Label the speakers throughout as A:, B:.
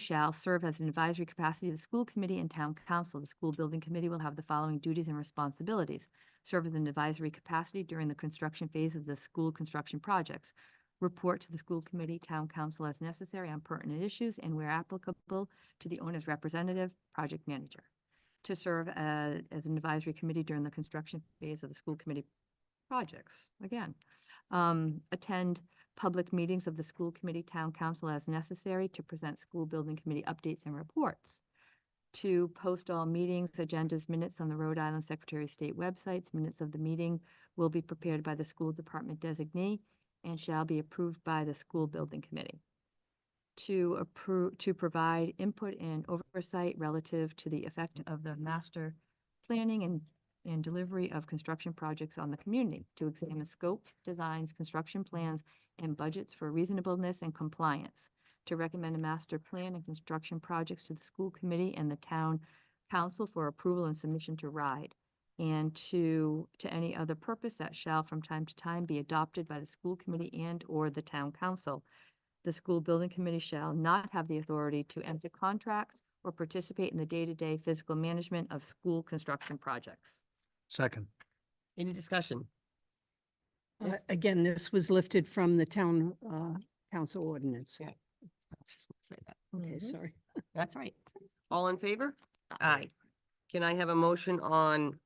A: shall serve as an advisory capacity to the school committee and town council. The school building committee will have the following duties and responsibilities. Serve as an advisory capacity during the construction phase of the school construction projects. Report to the school committee, town council as necessary on pertinent issues and where applicable to the owner's representative, project manager. To serve uh, as an advisory committee during the construction phase of the school committee projects, again. Um, Attend public meetings of the school committee, town council as necessary to present school building committee updates and reports. To post all meetings, agendas, minutes on the Rhode Island Secretary of State websites, minutes of the meeting will be prepared by the school department designee and shall be approved by the school building committee. To approve, to provide input and oversight relative to the effect of the master planning and and delivery of construction projects on the community to examine scope, designs, construction plans, and budgets for reasonableness and compliance, to recommend a master plan and construction projects to the school committee and the town council for approval and submission to RIDE, and to, to any other purpose that shall from time to time be adopted by the school committee and/or the town council. The school building committee shall not have the authority to enter contracts or participate in the day-to-day physical management of school construction projects.
B: Second,
C: Any discussion?
D: Uh,
C: Yes.
D: Again, this was lifted from the town uh, council ordinance.
C: Yeah. Say that.
D: Okay, sorry.
C: That's right. All in favor? Aye. Can I have a motion on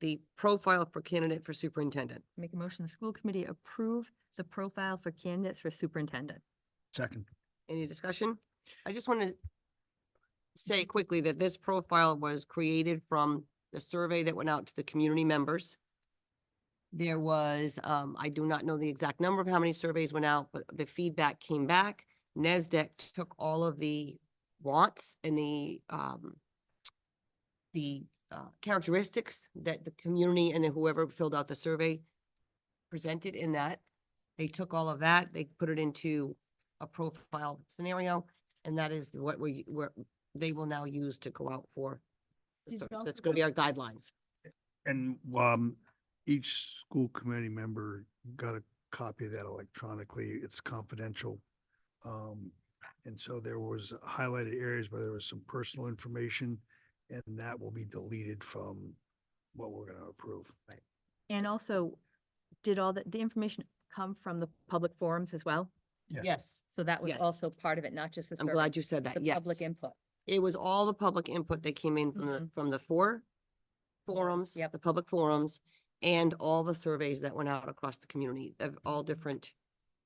C: the profile for candidate for superintendent?
A: Make a motion, the school committee approve the profile for candidates for superintendent.
B: second,
C: Any discussion? I just want to say quickly that this profile was created from the survey that went out to the community members. There was, um, I do not know the exact number of how many surveys went out, but the feedback came back. NESDEC took all of the wants and the, um, the, uh, characteristics that the community and then whoever filled out the survey presented in that. They took all of that, they put it into a profile scenario, and that is what we, we they will now use to go out for. the
D: Did you
C: search.
D: also
C: That's gonna be our guidelines.
B: and, um, each school committee member got a copy of that electronically, it's confidential. Um, and so there was highlighted areas where there was some personal information, and that will be deleted from what we're gonna approve.
A: And also, did all the, the information come from the public forums as well?
B: Yes.
C: Yes,
A: So that was
C: Yes.
A: also part of it, not just the.
C: I'm
A: survey,
C: glad you said that,
A: The
C: yes.
A: public input.
C: It was all the public input that came in from the, from the four forums,
A: Yep.
C: the public forums, and all the surveys that went out across the community of all different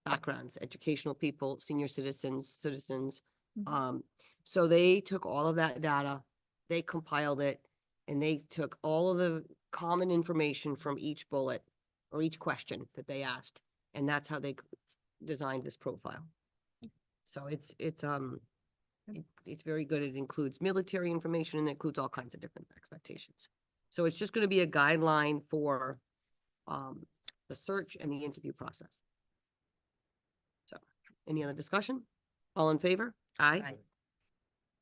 C: backgrounds, educational people, senior citizens, citizens.
A: Mhm.
C: Um, so they took all of that data, they compiled it, and they took all of the common information from each bullet or each question that they asked, and that's how they c- designed this profile. So it's, it's, um, it- it's very good. It includes military information and it includes all kinds of different expectations. So it's just gonna be a guideline for um, the search and the interview process. So, any other discussion? All in favor? Aye.
A: Aye.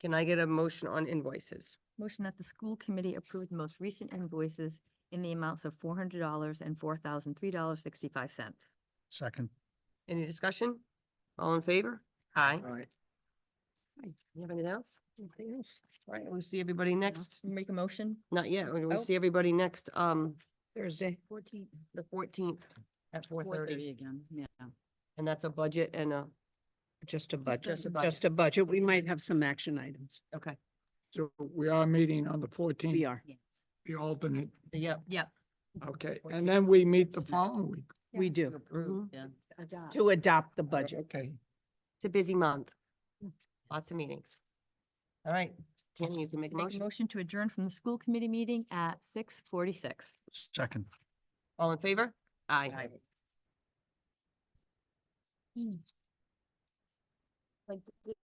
C: Can I get a motion on invoices?
A: Motion that the school committee approve the most recent invoices in the amounts of four hundred dollars and four thousand three dollars sixty-five cents.
B: Second,
C: Any discussion? All in favor? Aye.
D: Alright.
C: Aye. You have anything else? Anything else? All right, we'll see everybody next,
A: Make a motion?
C: not yet, we're gonna
D: Oh.
C: see everybody next, um,
D: Thursday. Fourteenth.
C: the fourteenth at four thirty.
D: again, yeah.
C: And that's a budget and a,
D: Just a
C: just
D: budget,
C: a budget.
D: just a budget. We might have some action items.
C: okay,
E: So we are meeting on the
D: We
E: fourteenth,
D: are.
A: Yes.
E: the alternate,
C: yep.
A: Yep.
E: okay,
C: 14th.
E: and then we meet the following week.
D: We do,
C: Mhm.
D: to adopt the budget.
E: Okay.
C: It's a busy month. Lots of meetings. All right, Tammy, you can make a
A: Make a
C: motion.
A: motion to adjourn from the school committee meeting at six forty-six.
B: second.
C: All in favor? Aye.
A: Like,